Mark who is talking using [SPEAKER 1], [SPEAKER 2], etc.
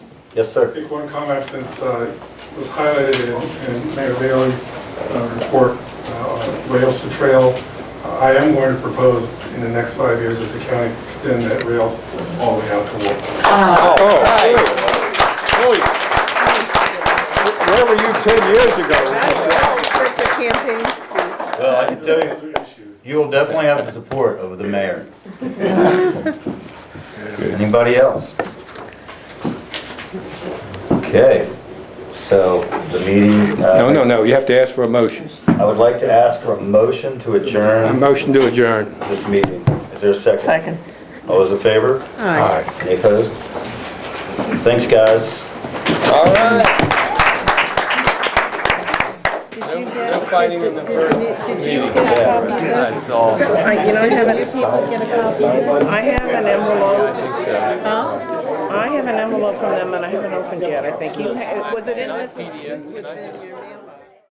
[SPEAKER 1] Yes, sir.
[SPEAKER 2] Make one comment that uh, was highlighted in- in Mayor Bailey's uh, report uh, on rails to trail. Uh, I am going to propose in the next five years that the county extend that rail all the way out to Wolf.
[SPEAKER 3] Oh, really? Where were you 10 years ago?
[SPEAKER 1] Well, I can tell you,
[SPEAKER 2] Those are issues.
[SPEAKER 1] you will definitely have the support of the mayor. Anybody else? Okay, so the meeting, uh,
[SPEAKER 3] No, no, no, you have to ask for a motion.
[SPEAKER 1] I would like to ask for a motion to
[SPEAKER 3] A
[SPEAKER 1] adjourn
[SPEAKER 3] motion to adjourn.
[SPEAKER 1] this meeting. Is there a second?
[SPEAKER 4] Second.
[SPEAKER 1] All those in favor?
[SPEAKER 4] Aye.
[SPEAKER 1] Any opposed? Thanks, guys.
[SPEAKER 3] All right.
[SPEAKER 5] Did you get,
[SPEAKER 3] No fighting in the first.
[SPEAKER 5] did you get a copy of this?
[SPEAKER 4] I, you know, I
[SPEAKER 5] Did
[SPEAKER 4] haven't,
[SPEAKER 5] people get a copy of this?
[SPEAKER 4] I have an envelope,
[SPEAKER 5] Huh?
[SPEAKER 4] I have an envelope from them and I haven't opened yet, I think. You ha- Was it in this? This was in your mailbox.